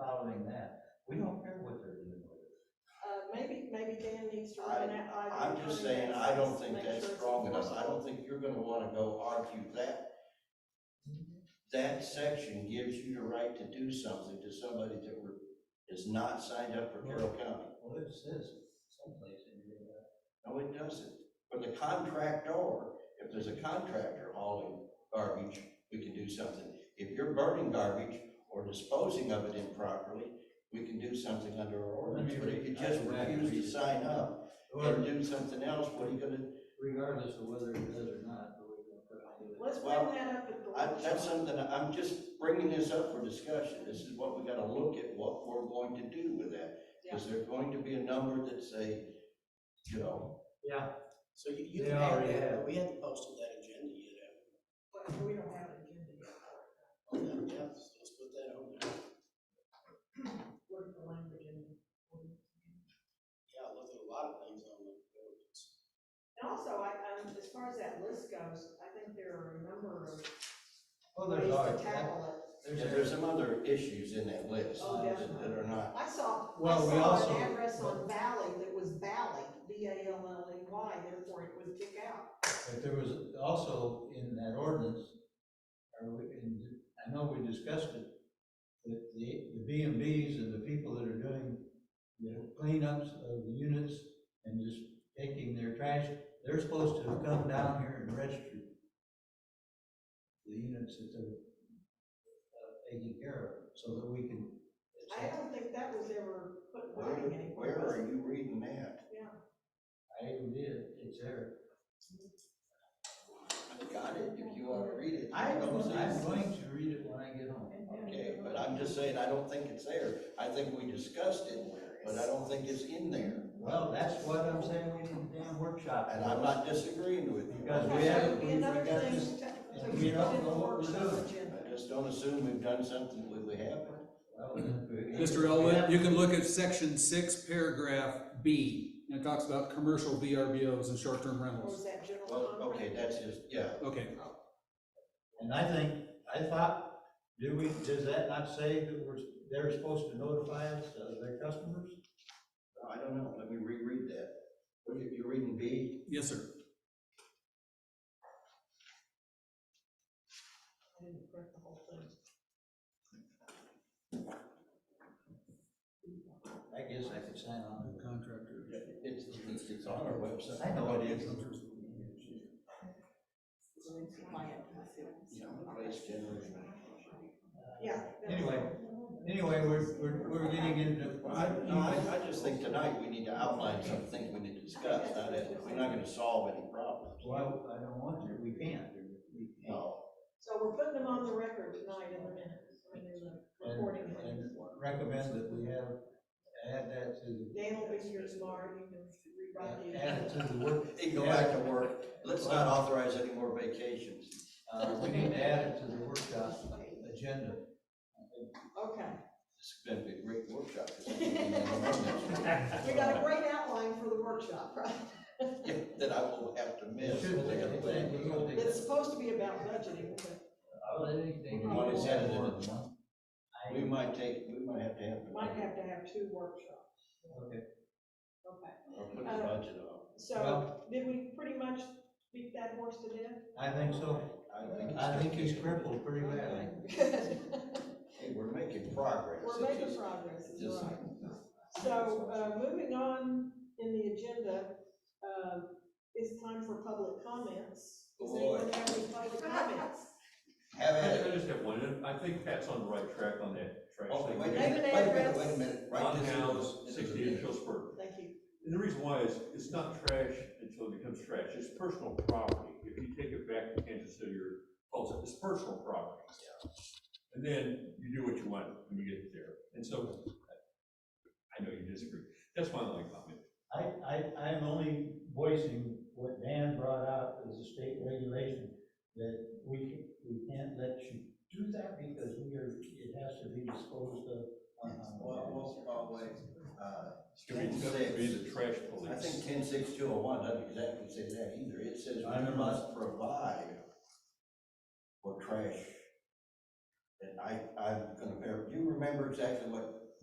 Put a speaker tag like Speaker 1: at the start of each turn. Speaker 1: Uh, Mr.
Speaker 2: I-
Speaker 1: Renat, I.
Speaker 2: I'm just saying, I don't think that's strong
Speaker 3: No.
Speaker 2: enough, I don't think you're gonna wanna go argue that. That section gives you the right to do something to somebody that were, is not signed up for Carroll County.
Speaker 4: Well, it says someplace in here that.
Speaker 2: No, it doesn't. For the contractor, if there's a contractor hauling garbage, we can do something. If you're burning garbage or disposing of it improperly, we can do something under our ordinance, but if you just refuse to sign up and
Speaker 4: Well,
Speaker 2: do something else, what are you gonna
Speaker 4: regardless of whether it does or not, but we're gonna put it in.
Speaker 1: Let's bring
Speaker 2: Well,
Speaker 1: that up at the
Speaker 2: I,
Speaker 1: workshop.
Speaker 2: that's something, I'm just bringing this up for discussion, this is what we gotta look at, what we're going to do with that. Is there going to be a number that say, you know,
Speaker 5: So you, you
Speaker 4: They
Speaker 5: can add
Speaker 4: already
Speaker 5: that,
Speaker 4: have.
Speaker 5: but we hadn't posted that agenda yet.
Speaker 1: But we don't have an agenda yet.
Speaker 5: Adam. Yeah, let's let's put that on there.
Speaker 1: What is the language in the ordinance?
Speaker 5: Yeah, I looked at a lot of things on the ordinance.
Speaker 1: And also, I, um, as far as that list goes, I think there are a number of
Speaker 4: Well,
Speaker 1: ways
Speaker 4: there's
Speaker 1: to
Speaker 4: already,
Speaker 1: tackle it.
Speaker 4: there's,
Speaker 2: yeah, there's
Speaker 4: there's,
Speaker 2: some other issues in that list
Speaker 1: Oh,
Speaker 2: that, that
Speaker 1: definitely.
Speaker 2: are not.
Speaker 1: I saw, I
Speaker 4: Well, we also-
Speaker 1: saw an address on Valley that was Valley, B A L L E Y, therefore it would kick out.
Speaker 4: but there was also in that ordinance, or we, and I know we discussed it, that the, the B and Bs and the people that are doing the cleanups of the units and just taking their trash, they're supposed to come down here and register the units that they're uh, taking care of, so that we can.
Speaker 1: I don't think that was ever put in
Speaker 2: Where,
Speaker 1: writing anywhere.
Speaker 2: where
Speaker 1: was
Speaker 2: are
Speaker 1: it?
Speaker 2: you reading that?
Speaker 4: I even did, it's there.
Speaker 2: I got it, if you wanna read it.
Speaker 4: I
Speaker 2: don't see
Speaker 4: I'm
Speaker 2: it.
Speaker 4: going to read it when I get home.
Speaker 2: Okay, but I'm just saying, I don't think it's there, I think we discussed it, but I don't think it's in there,
Speaker 4: Well, that's what I'm saying, we need a damn workshop.
Speaker 2: and I'm not disagreeing with you.
Speaker 4: Because
Speaker 1: Okay,
Speaker 4: we
Speaker 1: that
Speaker 4: have-
Speaker 1: would be
Speaker 4: we- we
Speaker 1: another
Speaker 4: got
Speaker 1: thing
Speaker 4: this-
Speaker 1: to- to
Speaker 4: and we don't
Speaker 1: put in
Speaker 4: know
Speaker 1: the
Speaker 4: what we're
Speaker 1: workshop
Speaker 4: doing.
Speaker 1: agenda.
Speaker 2: I just don't assume we've done something that we haven't.
Speaker 4: Well, we-
Speaker 6: Mr. Elwood, you can look at section six, paragraph B, and it talks about commercial VRBOs and short-term
Speaker 1: Or
Speaker 6: rentals.
Speaker 1: is that general
Speaker 2: Well,
Speaker 1: contract?
Speaker 2: okay, that's just, yeah,
Speaker 6: Okay,
Speaker 4: And I think, I thought, do we, does that not say that we're, they're supposed to notify us of their customers?
Speaker 2: I don't know, let me reread that. What, you- you're reading B?
Speaker 6: yes, sir.
Speaker 1: I didn't print the whole thing.
Speaker 4: I guess I could sign on to it.
Speaker 6: Contractor.
Speaker 2: It's, it's- it's on our website.
Speaker 4: I know it is.
Speaker 2: Yeah, place generation.
Speaker 1: Yeah. that's-
Speaker 4: Anyway. Anyway, we're, we're, we're getting into.
Speaker 2: Well, I, no, I, I just think tonight we need to outline some things we need to discuss, not that, we're not gonna solve any problems.
Speaker 4: Well, I don't want to, we can't, we can't.
Speaker 2: No,
Speaker 1: So we're putting them on the record tonight in the minutes, I mean, in the
Speaker 4: And-
Speaker 1: recording.
Speaker 4: And recommend that we have, add that to.
Speaker 1: Dan will be here tomorrow, you can rewrite the.
Speaker 4: Add it to the work.
Speaker 2: they can go back to work, let's not authorize any more vacations.
Speaker 4: Uh, we need to add it to the workshop agenda.
Speaker 1: Okay,
Speaker 2: This is gonna be a great workshop. 'cause I'm gonna be on this.
Speaker 1: we got a great outline for the workshop, right?
Speaker 2: Yeah, That I will have to miss.
Speaker 4: Should we,
Speaker 1: It's supposed to be about budgeting, but
Speaker 4: Uh,
Speaker 2: What is that? We
Speaker 4: I,
Speaker 2: might take, we might have to have.
Speaker 1: might have to have two workshops,
Speaker 4: okay,
Speaker 1: okay?
Speaker 2: Or put the budget off.
Speaker 1: So, did we pretty much beat that horse to death?
Speaker 4: I think so.
Speaker 2: I think it's.
Speaker 4: I think he's crippled pretty badly.
Speaker 1: Good.
Speaker 2: Hey, we're making progress.
Speaker 1: We're
Speaker 2: It's
Speaker 1: making
Speaker 2: just-
Speaker 1: progress,
Speaker 2: it's
Speaker 1: is
Speaker 2: just-
Speaker 1: right. So, uh, moving on in the agenda, um, it's time for public comments. Does anyone have any public comments?
Speaker 2: Have
Speaker 7: I
Speaker 2: at it.
Speaker 7: I just have one, and I think Pat's on the right track on that trash
Speaker 2: Oh,
Speaker 7: thing.
Speaker 2: wait a
Speaker 1: Name and
Speaker 2: minute, wait a minute,
Speaker 1: address.
Speaker 2: wait a minute. Write
Speaker 7: Ron
Speaker 2: this in.
Speaker 7: House,
Speaker 2: This is a
Speaker 7: sixty-eight
Speaker 2: minute.
Speaker 7: Hillsburg.
Speaker 1: Thank you.
Speaker 7: And the reason why is, it's not trash until it becomes trash, it's personal property. If you take it back to Kansas City or Tulsa, it's personal property. And then you do what you want when you get there. And so, I- I know you disagree. That's my only comment.
Speaker 4: I, I, I'm only voicing what Dan brought out as a state regulation, that we, can- we can't let you do that because we are, it has to be disposed of. on- on-
Speaker 2: Well, well, well, wait, uh,
Speaker 7: It's gonna be, it's gonna be the trash police.
Speaker 2: I think ten six two oh one doesn't exactly say that either. It says
Speaker 4: I
Speaker 2: we
Speaker 4: know.
Speaker 2: must provide for trash. And I, I'm gonna, ver- do you remember exactly what